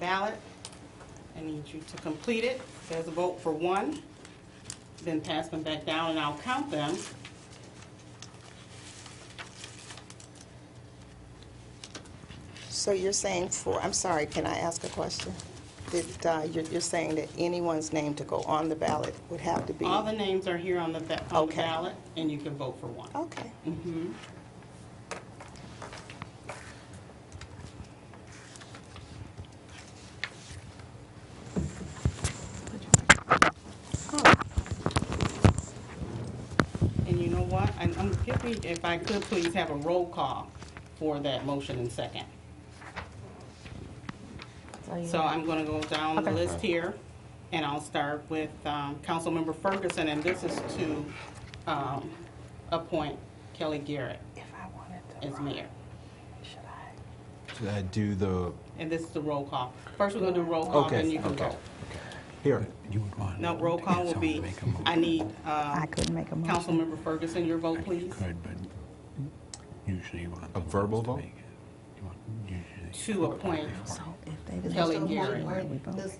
ballot. I need you to complete it. There's a vote for one, then pass them back down and I'll count them. So you're saying for, I'm sorry, can I ask a question? That uh, you're you're saying that anyone's name to go on the ballot would have to be? All the names are here on the ba- on the Okay. Oh. ballot, and you can vote for one. Mm-hmm. Okay. Oh. And you know what? I'm, I'm, if we- if I could, please have a roll call for that motion and second. Oh, So I'm going to go down the list here, and I'll start with um, Councilmember Ferguson, and this is to um, appoint Kelly Garrett If I wanted as mayor. should I? Should I uh, do the, And this is the roll call. First, we're going to do roll call, then okay, you can okay. vote. Here, You would want. No, roll call will be, I need uh, I couldn't make a motion. Councilmember Ferguson, your vote, please, Could, but usually you want. A verbal vote? to appoint. So if they didn't. Kelly vote, Garrett. why would we vote?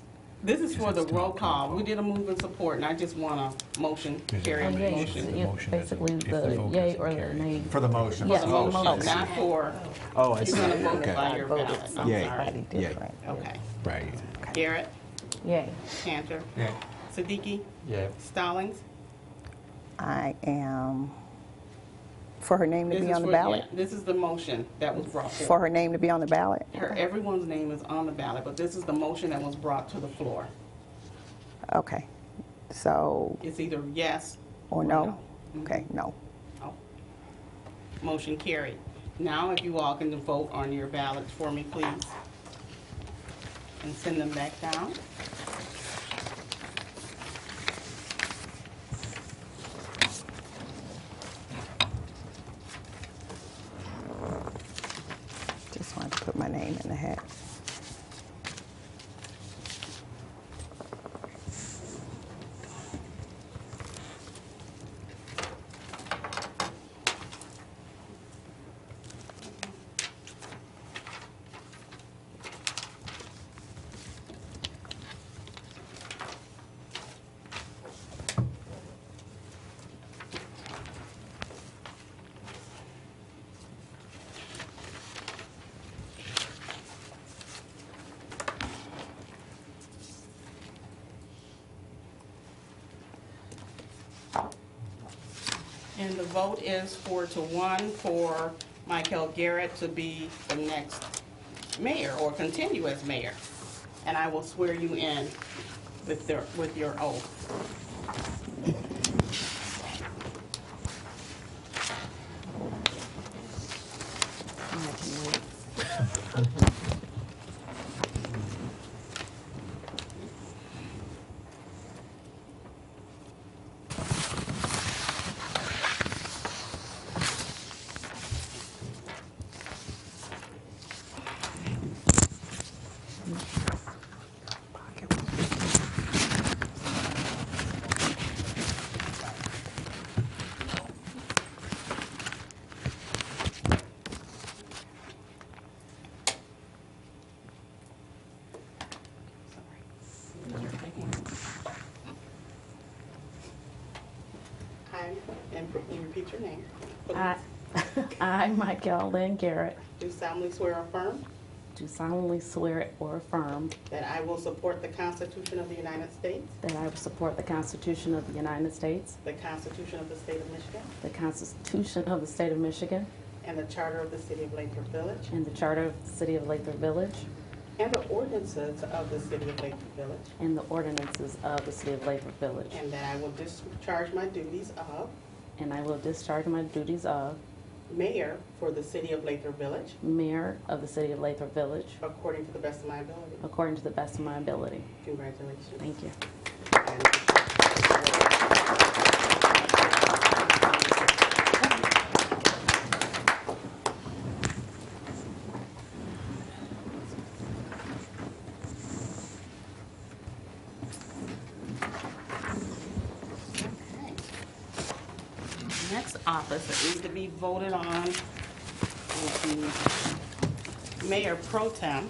This is for the roll call. We did a move and support, and I just want a motion, carry a Yeah, motion. yeah, Basically, the yay or the nay. for the motion. Yes. Oh, Oh, not for, Oh, I you're see. going to vote by Okay. your ballot. I'm Yay. sorry. Yay. Different. Okay. Right. Garrett, Yay. Cantor, Yeah. Siddiqui, Yeah. Stallings. I am, for her name to This be is on the for- ballot? yeah, This is the motion that was brought For forward. her name to be on the ballot? Her- Everyone's name is on the ballot, but this is the motion that was brought to the floor. Okay. So, It's either yes or no? Okay, no. Oh. Motion carried. Now, if you all can vote on your ballots for me, please, and send them back down. Just wanted to put my name in the hat. And the vote is four to one for Michael Garrett to be the next mayor or continue as mayor. And I will swear you in with their, with your oath. I, and you repeat your name. I, I, Michael Lynn Garrett, Do solemnly swear or affirm do solemnly swear or affirm that I will support the Constitution of the United States, that I will support the Constitution of the United States, the Constitution of the State of Michigan, the Constitution of the State of Michigan, and the Charter of the City of Lathrop Village, and the Charter of the City of Lathrop Village, And the ordinances of the City of Lakewood Village. and the ordinances of the City of Lathrop Village. And that I will discharge my duties of And I will discharge my duties of mayor for the City of Lakewood Village mayor of the City of Lathrop Village according to the best of my ability. according to the best of my ability. Congratulations. Thank you. Next office that needs to be voted on will be Mayor Pro Tem.